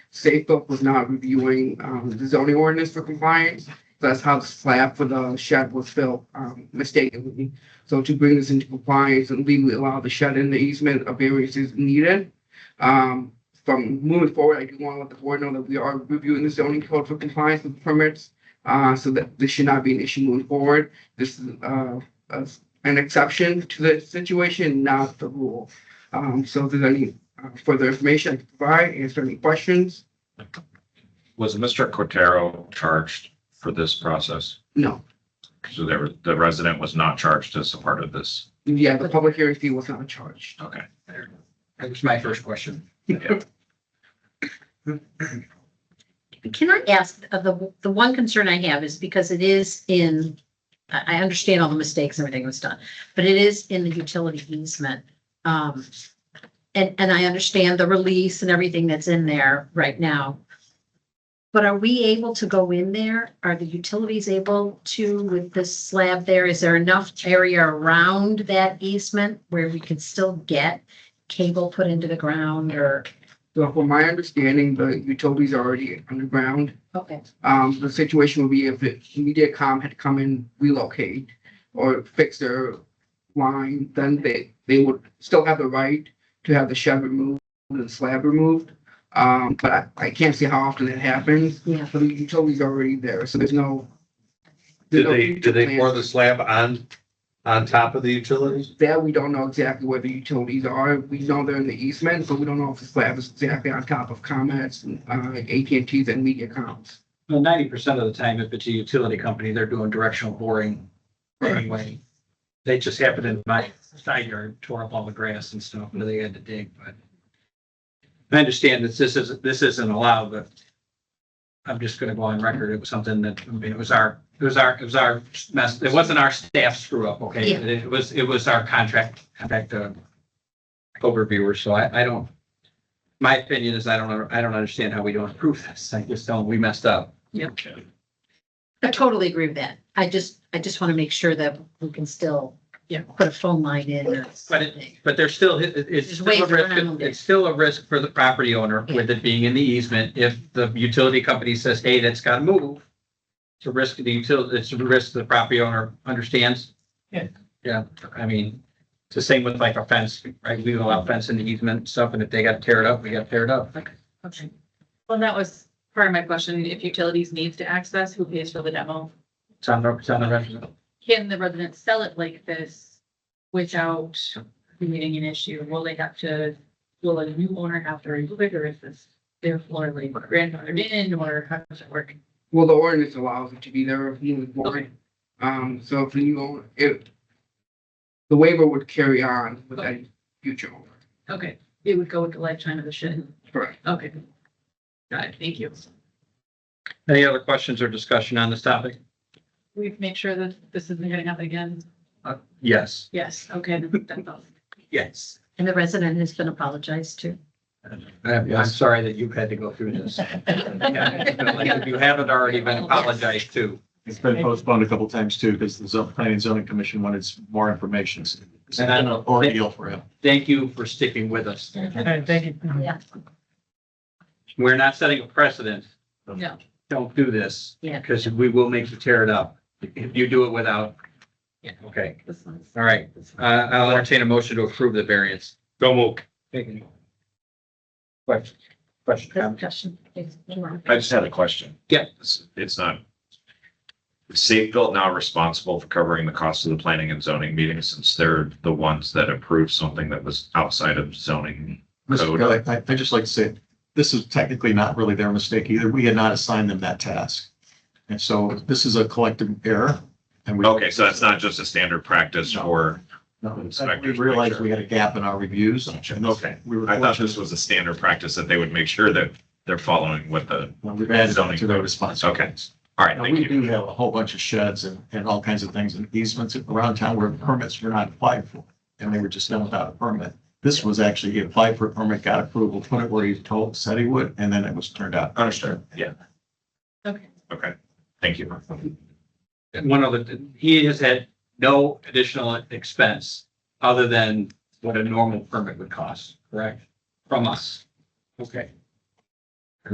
Safeco was not reviewing, um, the zoning ordinance for compliance. That's how the slab for the shed was built, um, mistakenly. So to bring this into compliance and legally allow the shed in the easement, a variance is needed. Um, from moving forward, I do want to let the board know that we are reviewing the zoning code for compliance with permits. Uh, so that this should not be an issue moving forward. This is, uh, a an exception to the situation, not the rule. Um, so if there's any uh, further information I can provide, answer any questions? Was Mr. Cotero charged for this process? No. So there, was- the resident was not charged as a part of this. Yeah, the public hearing fee was not charged. Okay. That was my first question. Can I ask, uh, the, the one concern I have is because it is in, I, I understand all the mistakes, and everything was done, but it is in the utility easement. Um, and, and I understand the release and everything that's in there right now. But are we able to go in there? Are the utilities able to with this slab there? Is there enough area around that easement where we can still get cable put into the ground or? So from my understanding, the utilities are already underground. Okay. Um, the situation would be if it- MediaCom had come and relocate or fix their line, then they, they would still have the right to have the shed removed and the slab removed. Um, but I, I can't see how often that happens. Yeah. So the utility's already there, so there's no. Did there's no they, future did they plan. pour the slab on, on top of the utilities? That we don't know exactly where the utilities are. We know they're in the easement, but we don't know if the slab is exactly on top of Comets, uh, AT&Ts and MediaComs. Well, ninety percent of the time, if it's a utility company, they're doing directional boring anyway. They just happened in my side yard, tore up all the grass and stuff, and they had to dig, but. I understand that this isn't, this isn't allowed, but. I'm just gonna go on record. It was something that, I mean, it was our, it was our, it was our mess. It wasn't our staff screw up, okay? Yeah. It was, it was our contract, contract, uh. Overviewer, so I, I don't. My opinion is I don't, I don't understand how we don't approve this. I just don't, we messed up. I totally agree with that. I just, I just want to make sure that we can still, you know, put a phone line in or But it- something. But there's still, it- it's There's still a ways risk, around it. it's still a risk for the property owner with it being in the easement. If the utility company says, hey, that's gotta move. It's a risk to the utility, it's a risk the property owner understands. Yeah. Yeah, I mean, it's the same with like a fence, right? We allow fence in the easement and stuff, and if they gotta tear it up, we gotta tear it up. Okay. Well, that was part of my question. If utilities needs to access, who pays for the demo? It's on the, it's on the resident. Can the residents sell it like this without creating an issue? Will they have to, will a new owner have to remove it or is this their floor like grandfathered in or how does it work? Well, the ordinance allows it to be there if you Okay. want. Um, so if you, own it, the waiver would carry on with any future owner. Okay, it would go with the lifetime of the shed. Correct. Okay. Got it. Thank you. Any other questions or discussion on this topic? We've made sure that this isn't gonna happen again. Uh, Yes. Yes, okay, that's all. Yes. And the resident has been apologized to. I'm I'm sorry that you've had to go through this. Yeah, like If you haven't already been apologized to. It's been postponed a couple times too, because the zone, planning and zoning commission wanted some more information. So It's And I an know- ordeal for him. Thank you for sticking with us. Thank you. Yeah, We're not setting a precedent. No. Don't do this. Yeah. Because we will make you tear it up if you do it without. Yeah. Okay, This one's. all right. Uh, I'll entertain a motion to approve the variance. Don't move. Question, question, comment? discussion. I just had a question. Yeah. It's, it's not. Is Safebuilt now responsible for covering the cost of the planning and zoning meetings since they're the ones that approved something that was outside of zoning? Mr. Code. Kelly, I, I'd just like to say, this is technically not really their mistake either. We had not assigned them that task. And so this is a collective error and we. Okay, so that's not just a standard practice for, No, We realized we had a gap in our reviews. and Okay. We were. I thought this was a standard practice that they would make sure that they're following what the, We've added that to their responsibilities. all right, Now, thank we do you. have a whole bunch of sheds and, and all kinds of things and easements around town where permits were not applied for. And they were just done without a permit. This was actually, he applied for a permit, got approval, put it where he told, said he would, and then it was turned out. Understood, yeah. Okay. Okay, thank you. And um, one other, he has had no additional expense other than what a normal permit would cost, correct? From us. Okay.